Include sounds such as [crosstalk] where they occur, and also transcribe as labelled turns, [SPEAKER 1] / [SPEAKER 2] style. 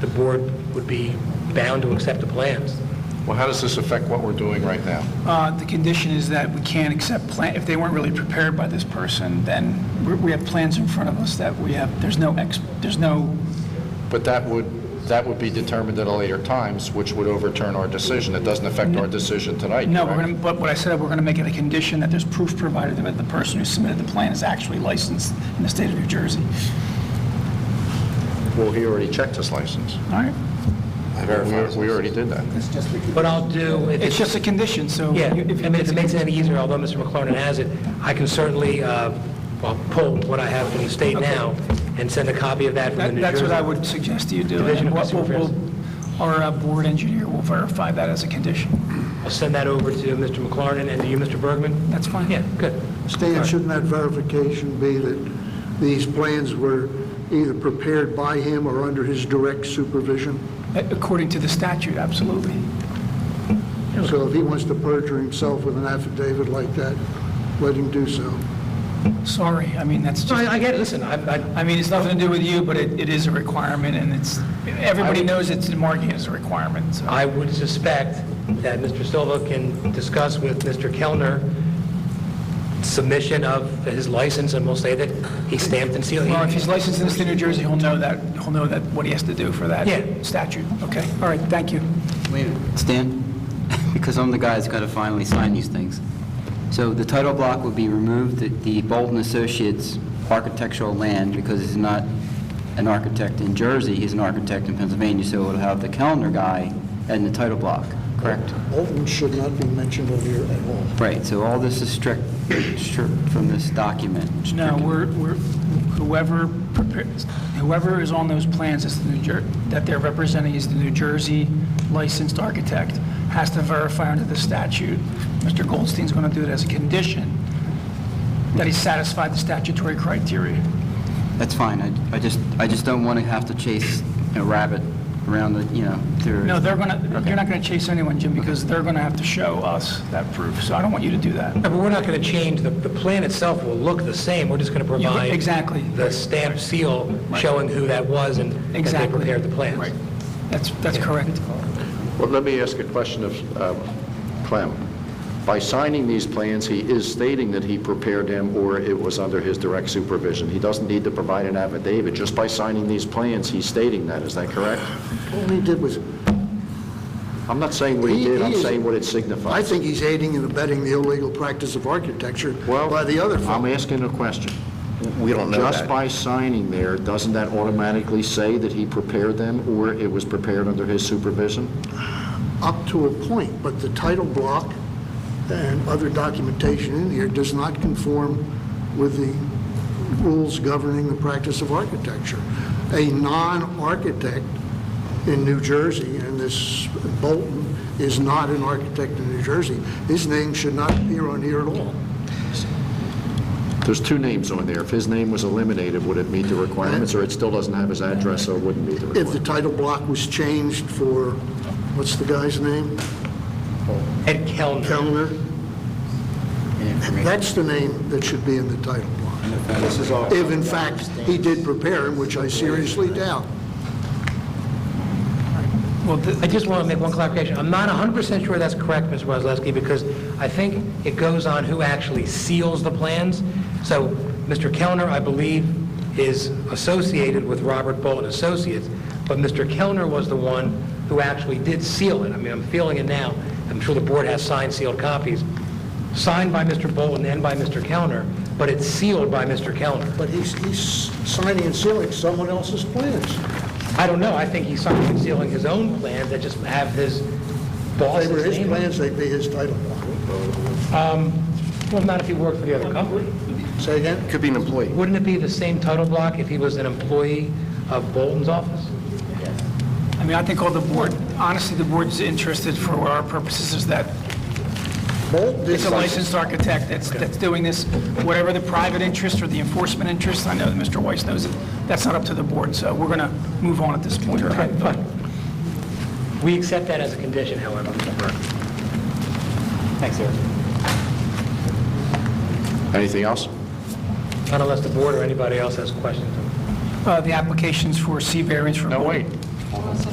[SPEAKER 1] the board would be bound to accept the plans.
[SPEAKER 2] Well, how does this affect what we're doing right now?
[SPEAKER 3] Uh, The condition is that we can't accept plan, if they weren't really prepared by this person, then we- we have plans in front of us that we have, there's no, ex. there's no,
[SPEAKER 2] But that would, that would be determined at a later times, which would overturn our decision. It doesn't affect our decision tonight,
[SPEAKER 3] no, we're
[SPEAKER 2] correct?
[SPEAKER 3] going to, but what I said, we're going to make it a condition that there's proof provided that the person who submitted the plan is actually licensed in the state of New Jersey.
[SPEAKER 2] Well, he already checked his license.
[SPEAKER 3] All right?
[SPEAKER 2] We we already did that.
[SPEAKER 3] It's just,
[SPEAKER 1] What I'll do, if
[SPEAKER 3] it's just a condition, so.
[SPEAKER 1] Yeah, I
[SPEAKER 3] you- if-
[SPEAKER 1] mean, if it makes it any easier, although Mr. McLaren has it, I can certainly, uh, well, pull what I have from the state now and send a copy of that from the
[SPEAKER 3] That-
[SPEAKER 1] New Jersey.
[SPEAKER 3] That's what I would suggest you do. and
[SPEAKER 1] Division of
[SPEAKER 3] we'll-
[SPEAKER 1] Consumer
[SPEAKER 3] we'll- Our uh, board engineer will verify that as a condition.
[SPEAKER 1] I'll send that over to Mr. McLaren and to you, Mr. Bergman.
[SPEAKER 3] That's fine.
[SPEAKER 1] Yeah, good.
[SPEAKER 4] Stan, shouldn't that verification be that these plans were either prepared by him or under his direct supervision?
[SPEAKER 3] According to the statute, absolutely.
[SPEAKER 4] So if he wants to perjure himself with an affidavit like that, let him do so.
[SPEAKER 3] Sorry, I mean, that's
[SPEAKER 1] So
[SPEAKER 3] just,
[SPEAKER 1] I I get it, listen, I, I-
[SPEAKER 3] I mean, it's nothing to do with you, but it it is a requirement, and it's, everybody knows it's, marking it as a requirement, so.
[SPEAKER 1] I would suspect that Mr. Silva can discuss with Mr. Kellner submission of his license, and we'll say that he stamped and sealed.
[SPEAKER 3] Well, if he's licensed in the state of New Jersey, he'll know that, he'll know that, what he has to do for that
[SPEAKER 1] Yeah.
[SPEAKER 3] statute. Okay, all right, thank you.
[SPEAKER 5] Wait a minute. Stan, [laughs] because I'm the guy that's got to finally sign these things. So the title block would be removed, the- the Bolton Associates architectural land, because he's not an architect in Jersey, he's an architect in Pennsylvania, so it'll have the calendar guy and the title block, correct?
[SPEAKER 4] Bolton should not be mentioned on here at all.
[SPEAKER 5] Right, so all this is strict, strict from this document.
[SPEAKER 3] No, we're, we're, whoever prepares, whoever is on those plans is the New Jer, that they're representing is the New Jersey licensed architect, has to verify under the statute. Mr. Goldstein's going to do it as a condition that he satisfied the statutory criteria.
[SPEAKER 5] That's fine, I- I just, I just don't want to have to chase a rabbit around the, you know, through...
[SPEAKER 3] No, they're going to, you're not going to chase anyone, Jim, because they're going to have to show us that proof, so I don't want you to do that.
[SPEAKER 1] No, But we're not going to change, the, the plan itself will look the same, we're just going to
[SPEAKER 3] Yeah,
[SPEAKER 1] provide...
[SPEAKER 3] exactly.
[SPEAKER 1] The stamp seal showing who that was and that they
[SPEAKER 3] Exactly.
[SPEAKER 1] prepared the plans.
[SPEAKER 3] Right. That's, that's correct.
[SPEAKER 2] Well, let me ask a question of uh, Clem. By signing these plans, he is stating that he prepared them or it was under his direct supervision. He doesn't need to provide an affidavit. Just by signing these plans, he's stating that. Is that correct?
[SPEAKER 4] All he did was,
[SPEAKER 2] I'm not saying what he
[SPEAKER 4] He-
[SPEAKER 2] did,
[SPEAKER 4] he
[SPEAKER 2] I'm
[SPEAKER 4] is-
[SPEAKER 2] saying what it
[SPEAKER 4] I
[SPEAKER 2] signifies.
[SPEAKER 4] think he's aiding and abetting the illegal practice of architecture
[SPEAKER 2] Well,
[SPEAKER 4] by the other
[SPEAKER 2] I'm
[SPEAKER 4] fellow.
[SPEAKER 2] asking a question. We don't know Just by signing there, doesn't that automatically say that he prepared them or it was prepared under his supervision?
[SPEAKER 4] Up to a point, but the title block and other documentation in here does not conform with the rules governing the practice of architecture. A non-architect in New Jersey, and this Bolton is not an architect in New Jersey, his name should not appear on here at all.
[SPEAKER 2] There's two names on there. If his name was eliminated, would it meet the requirements, or it still doesn't have his address, so it wouldn't meet the
[SPEAKER 4] If the
[SPEAKER 2] requirements?
[SPEAKER 4] title block was changed for, what's the guy's name?
[SPEAKER 1] Ed Kellner.
[SPEAKER 4] Kellner?
[SPEAKER 5] Information.
[SPEAKER 4] That's the name that should be in the title block. If in fact he did prepare him, which I seriously doubt.
[SPEAKER 3] Well, the-
[SPEAKER 1] I just want to make one clarification. I'm not 100% sure that's correct, Ms. Wesleski, because I think it goes on who actually seals the plans. So Mr. Kellner, I believe, is associated with Robert Bolton Associates, but Mr. Kellner was the one who actually did seal it. I mean, I'm feeling it now. I'm sure the board has signed sealed copies, signed by Mr. Bolton and by Mr. Kellner, but it's sealed by Mr. Kellner.
[SPEAKER 4] But he's, he's signing and sealing someone else's plans.
[SPEAKER 1] I don't know. I think he's signed and sealing his own plans that just have his
[SPEAKER 4] If
[SPEAKER 1] boss's
[SPEAKER 4] they were his
[SPEAKER 1] name on it.
[SPEAKER 4] plans, they'd be his title block.
[SPEAKER 1] Well, not if he worked for the other company.
[SPEAKER 4] Say again?
[SPEAKER 2] Could be an employee.
[SPEAKER 1] Wouldn't it be the same title block if he was an employee of Bolton's office?
[SPEAKER 3] I mean, I think all the board, honestly, the board's interested for our purposes is that
[SPEAKER 4] Bolton
[SPEAKER 3] it's
[SPEAKER 4] is
[SPEAKER 3] a
[SPEAKER 4] licensed.
[SPEAKER 3] licensed architect that's, that's doing this, whatever the private interest or the enforcement interest, I know that Mr. Weiss knows it, that's not up to the board, so we're going to move on at this point.
[SPEAKER 1] Fine. We accept that as a condition, however, Mr. Burke.
[SPEAKER 5] Thanks, Eric.
[SPEAKER 2] Anything else?
[SPEAKER 1] Not unless the board or anybody else has questions.
[SPEAKER 3] Uh, The applications for C variance for...
[SPEAKER 2] No, wait.